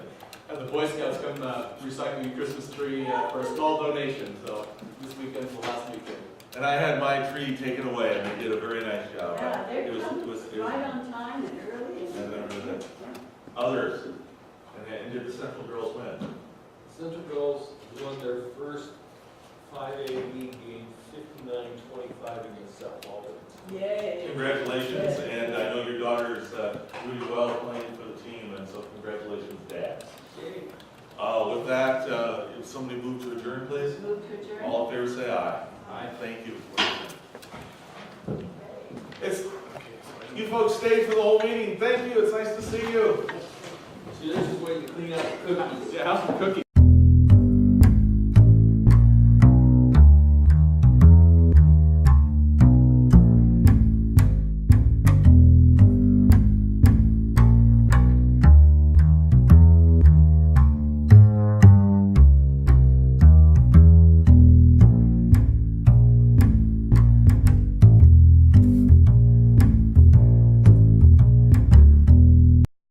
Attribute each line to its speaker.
Speaker 1: Boy Scouts come uh, recycling a Christmas tree uh, for a small donation, so this weekend's the last weekend.
Speaker 2: And I had my tree taken away, and they did a very nice job.
Speaker 3: Yeah, they
Speaker 2: It was,
Speaker 3: come
Speaker 2: it was, it
Speaker 3: Right
Speaker 2: was,
Speaker 3: on time and early. and-
Speaker 2: I remember that.
Speaker 3: Yeah.
Speaker 2: others, and they and did the Central Girls win?
Speaker 4: Central Girls won their first 5A league game 59-25 against South Walton.
Speaker 3: Yay.
Speaker 2: Congratulations, and I know your daughter's uh, doing well playing for the team, and so congratulations, Dad. Uh, With that, uh, if somebody move to adjourn, please?
Speaker 3: Move to adjourn.
Speaker 2: All in favor, say aye.
Speaker 3: Aye.
Speaker 2: Thank you.
Speaker 3: Okay.
Speaker 2: It's, you folks stayed for the whole meeting, thank you, it's nice to see you.
Speaker 4: See, this is where you clean up the cookies.
Speaker 1: Yeah, how's the cookie?